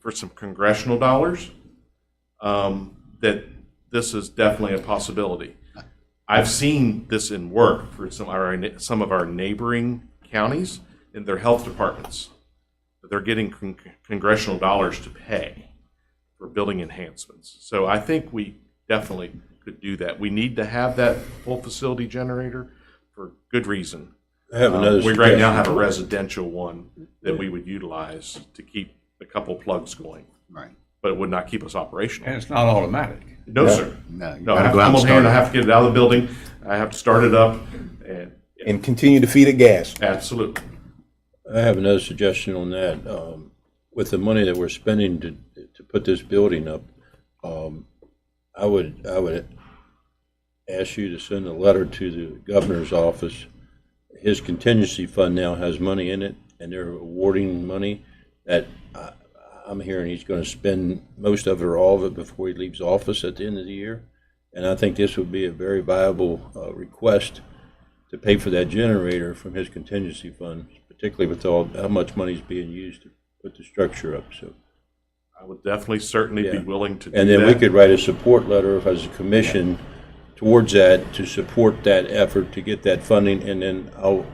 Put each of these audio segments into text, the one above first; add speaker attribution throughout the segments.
Speaker 1: for some congressional dollars, um, that this is definitely a possibility. I've seen this in work for some of our, some of our neighboring counties in their health departments. They're getting con- congressional dollars to pay for building enhancements. So I think we definitely could do that. We need to have that full facility generator for good reason.
Speaker 2: I have another.
Speaker 1: Um, We right now
Speaker 2: suggestion.
Speaker 1: have a residential one that we would utilize to keep a couple plugs going,
Speaker 3: Right.
Speaker 1: but it would not keep us
Speaker 4: And
Speaker 1: operational.
Speaker 4: it's not automatic.
Speaker 1: No, sir.
Speaker 3: No, you
Speaker 1: No, I have to
Speaker 3: gotta go out
Speaker 1: come
Speaker 3: and
Speaker 1: over here
Speaker 3: start.
Speaker 1: and I have to get it out of the building. I have to start it up and,
Speaker 2: And continue to feed it gas.
Speaker 1: absolutely.
Speaker 2: I have another suggestion on that. Um, With the money that we're spending to, to put this building up, um, I would, I would ask you to send a letter to the governor's office. His contingency fund now has money in it, and they're awarding money that I- I'm hearing he's going to spend most of it or all of it before he leaves office at the end of the year. And I think this would be a very viable uh, request to pay for that generator from his contingency fund, particularly with all, how much money's being used to put the structure up, so.
Speaker 1: I would definitely certainly be
Speaker 2: Yeah.
Speaker 1: willing to do that.
Speaker 2: And then we could write a support letter as a commission towards that, to support that effort to get that funding, and then I'll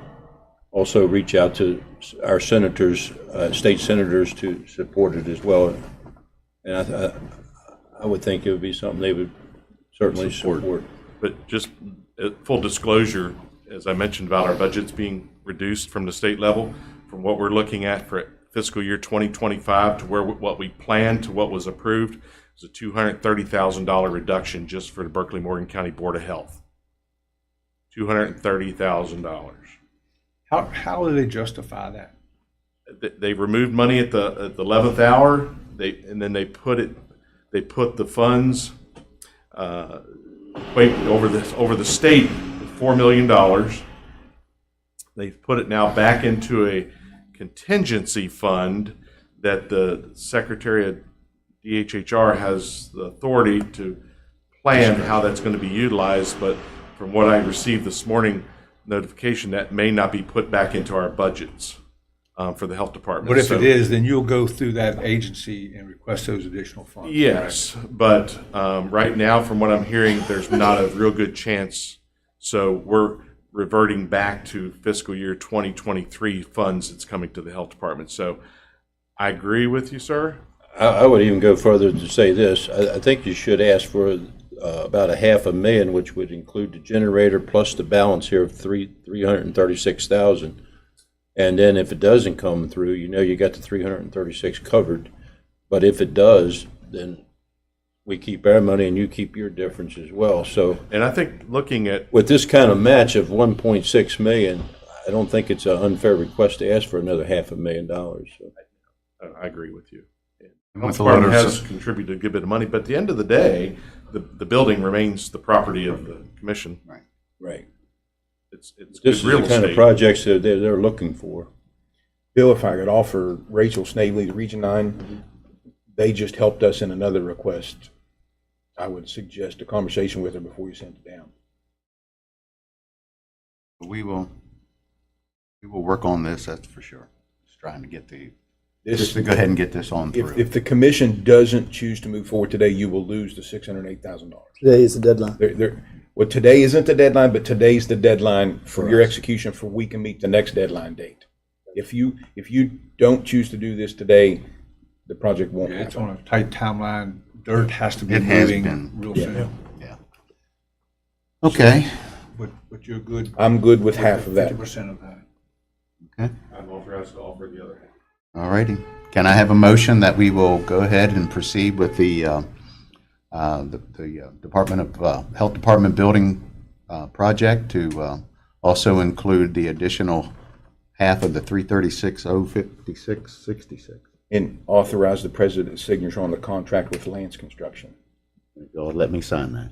Speaker 2: also reach out to s- our senators, uh, state senators to support it as well. And I, th- I would think it would be something they would certainly support.
Speaker 1: But just uh, full disclosure, as I mentioned about our budgets being reduced from the state level, from what we're looking at for fiscal year 2025 to where, what we planned to what was approved, is a $230,000 reduction just for the Berkeley Morgan County Board of Health. $230,000.
Speaker 4: How, how do they justify that?
Speaker 1: They- They removed money at the, at the 11th hour, they, and then they put it, they put the funds uh, wait, over this, over the state, four million dollars. They've put it now back into a contingency fund that the Secretary of DHHR has the authority to plan how that's going to be utilized, but from what I received this morning notification, that may not be put back into our budgets uh, for the health department.
Speaker 4: But if
Speaker 1: So-
Speaker 4: it is, then you'll go through that agency and request those additional funds.
Speaker 1: Yes, but um, right now, from what I'm hearing, there's not a real good chance. So we're reverting back to fiscal year 2023 funds that's coming to the health department. So I agree with you, sir.
Speaker 2: I, I would even go further to say this. I, I think you should ask for uh, about a half a million, which would include the generator plus the balance here of three three hundred and thirty six thousand. And then if it doesn't come through, you know you got the three hundred and thirty six covered. But if it does, then we keep our money and you keep your difference as well. So
Speaker 1: And I think looking at
Speaker 2: with this kind of match of one point six million, I don't think it's an unfair request to ask for another half a million dollars. So.
Speaker 1: Uh, I agree with you.
Speaker 3: With
Speaker 1: Health
Speaker 3: a lot
Speaker 1: department
Speaker 3: of
Speaker 1: has
Speaker 3: s-
Speaker 1: contributed a good bit of money, but at the end of the day, the, the building remains the property of the commission.
Speaker 2: Right.
Speaker 1: It's, it's
Speaker 2: This is
Speaker 1: good real
Speaker 2: the kind of
Speaker 1: estate.
Speaker 2: projects that they're, they're looking for.
Speaker 5: Bill, if I could offer Rachel Snavely, the Region Nine, they just helped us in another request. I would suggest a conversation with her before you send it down.
Speaker 3: We will, we will work on this, that's for sure. Just trying to get the, just
Speaker 5: This,
Speaker 3: to go ahead and get this on
Speaker 5: if,
Speaker 3: through.
Speaker 5: if the commission doesn't choose to move forward today, you will lose the six hundred and eight thousand dollars.
Speaker 6: Today is the deadline.
Speaker 5: There, there, well, today isn't the deadline, but today's the deadline for your execution for we can meet the next deadline date. If you, if you don't choose to do this today, the project won't
Speaker 4: Yeah, It's
Speaker 5: happen.
Speaker 4: on a tight timeline. Dirt has to be
Speaker 3: It has
Speaker 4: moving
Speaker 3: been.
Speaker 4: real soon.
Speaker 3: Yeah. Okay,
Speaker 4: But, but you're good.
Speaker 5: I'm good with half of that.
Speaker 4: Fifty percent of that.
Speaker 3: okay,
Speaker 1: I'm authorized to offer the other half.
Speaker 3: all righty. Can I have a motion that we will go ahead and proceed with the, uh, uh, the the uh, Department of, uh, Health Department Building uh, Project to uh, also include the additional half of the 336,056.66?
Speaker 5: And authorize the president's signature on the contract with Lance Construction.
Speaker 3: Go ahead, Let me sign that.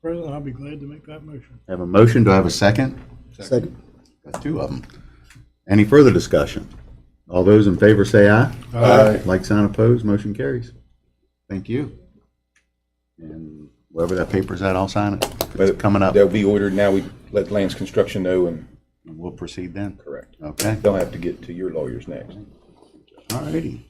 Speaker 7: President, I'll be glad to make that motion.
Speaker 3: Have a motion, do I have a second?
Speaker 6: Second.
Speaker 3: Got two of them. Any further discussion? All those in favor say aye. Aye. Like, sign opposed, motion carries. Thank you. And wherever that paper's at, I'll sign it. If It's coming up,
Speaker 5: They'll be ordered now. We let Lance Construction know and
Speaker 3: we'll proceed then.
Speaker 5: correct.
Speaker 3: Okay,
Speaker 5: They'll have to get to your lawyers next.
Speaker 3: all righty.